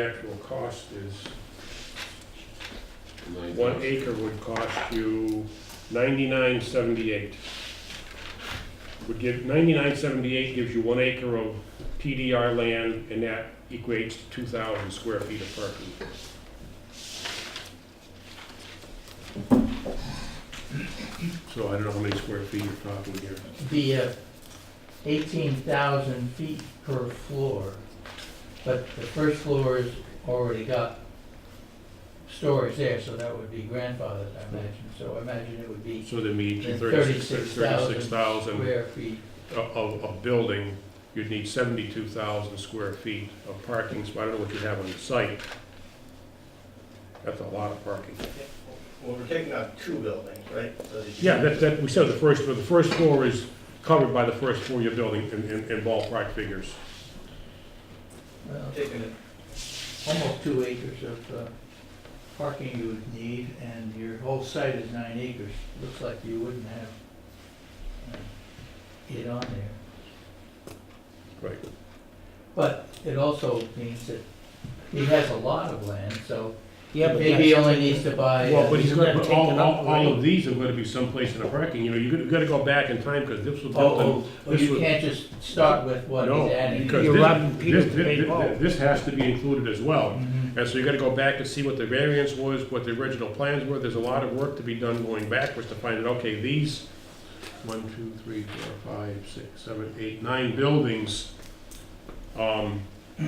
actual cost is, Nine one thousand. acre would cost you ninety-nine seventy-eight. Would give, ninety-nine seventy-eight gives you one acre of PDR land, and that equates to two thousand square feet of parking. So I don't know how many square feet you're talking here. be at eighteen thousand feet per floor, but the first floor is already got storage there, so that would be grandfathered, I imagine, so I imagine it would be So they need Then thirty-six 36,000 thirty-six thousand square feet. of, of building, you'd need seventy-two thousand square feet of parking, so I don't know what you have on the site. That's a lot of parking. Well, we're taking out two buildings, right? So that you- Yeah, that, that, we said the first, the first floor is covered by the first floor you're building in, in in ballpark figures. Well, Taking it, almost two acres of uh, parking you would need, and your whole site is nine acres. Looks like you wouldn't have uh, it on there. Right. But it also means that he has a lot of land, so Yeah, but maybe he that's- only needs to buy. Well, uh, but he's Isn't gonna, that put all, taken all, up all of already? these are gonna be someplace in the parking, you know, you gotta, you gotta go back in time, cause this was built in Oh, oh, this you would- can't just start with what No, he's adding. because You're this- robbing Peter this- to this- pay this- Paul. This has to be included as well. Mhm. And so you gotta go back and see what the variance was, what the original plans were, there's a lot of work to be done going backwards to find out, okay, these, one, two, three, four, five, six, seven, eight, nine buildings, um,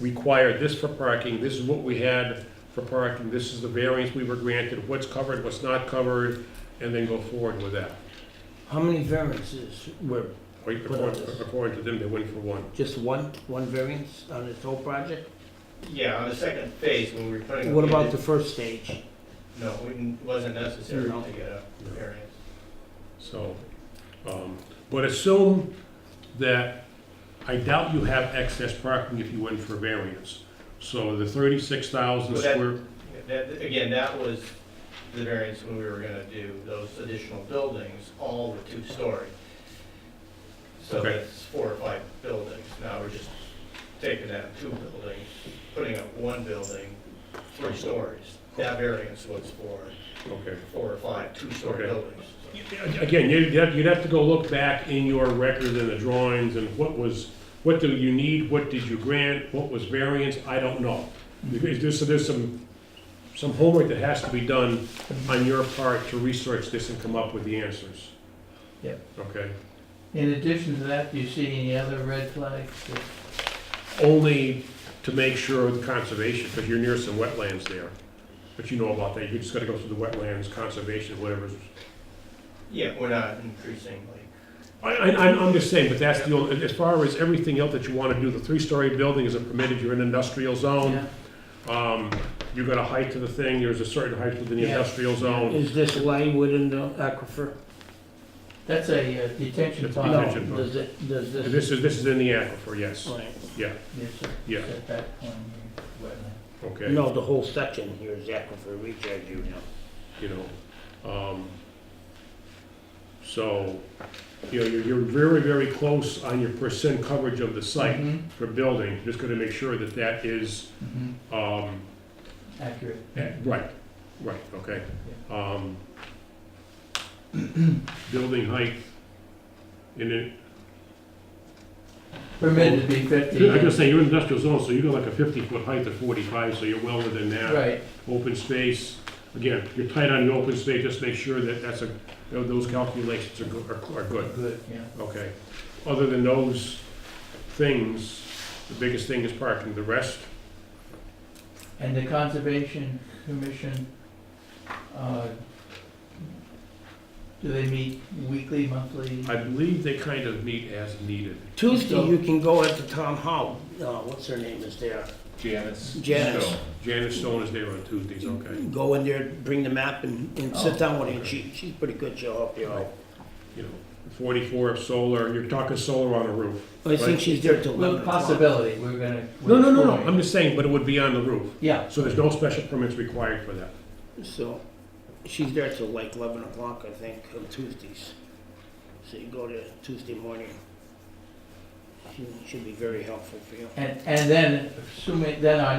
require this for parking, this is what we had for parking, this is the variance we were granted, what's covered, what's not covered, and then go forward with that. How many variances were, Or you- According according to them, they went for one. just one, one variance on this whole project? yeah, on the second phase, when we were putting. What it about the in- first stage? No, we didn't- it wasn't necessary Mm. No. to get a variance. So, um, but assume that, I doubt you have excess parking if you went for variance. So the thirty-six thousand But that- square, That, again, that was the variance when we were gonna do those additional buildings, all were two-story. So Okay. that's four or five buildings. Now we're just taking out two buildings, putting up one building, three stories. That variance was for okay. four or five two-story Okay. buildings. Again, you'd have, you'd have to go look back in your records and the drawings and what was, what do you need, what did you grant, what was variance, I don't know. Because there's, so there's some, some homework that has to be done on your part to research this and come up with the answers. Yep. Okay? In addition to that, do you see any other red flags? that- only to make sure of the conservation, because you're near some wetlands there. But you know about that, you just gotta go through the wetlands, conservation, whatever's. Yeah, we're not increasing like I, I, I'm- I'm just saying, but that's the only, as far as everything else that you wanna do, the three-story building isn't permitted, you're in industrial zone. Yeah. Um, you got a height to the thing, there's a certain height within the Yeah. industrial zone. Is this way within the aquifer? That's a uh, detention It's a No, pond. Detention pond. does it, Oh, does this? This is, this is in the aquifer, yes, Right. Yes, sir. yeah, At that point, you're wetland. okay. No, the whole section here is aquifer recharge unit. you know. Um, so, you know, you're, you're very, very close on your percent coverage of the site Mhm, for building. Just gonna make sure that that is, mhm. um, Accurate. eh, right, right, okay. Um, building height in it, Permitted to be I was fifty. gonna say, you're in industrial zone, so you're going like a fifty-foot height to forty-five, so you're well within that. Right, Open space, again, you're tight on the open space, just make sure that that's a, those calculations are go- are, are good. uh, good, yeah. Okay. Other than those things, the biggest thing is parking. The rest, And the Conservation Commission, uh, do they meet weekly, monthly? I believe they kind of meet as needed. Tuesday, So- you can go at the town hall, uh, what's her name is there? Janice. Janice. Stone. Janice Stone is there on Tuesdays, okay. Go in there, bring the map and, and sit Oh, down with her, okay. she, she's pretty good, she'll help you out. You know, forty-four of solar, you're talking solar on a roof. I think Right. she's there till Well, eleven o'clock. possibility, we're gonna. No, we're no, no, no, exploring. I'm just saying, but it would be on the roof. Yeah, So there's no special permits required for that. So, she's there till like eleven o'clock, I think, on Tuesdays. So you go to Tuesday morning. Should be very helpful for you. And, and then, assuming, then on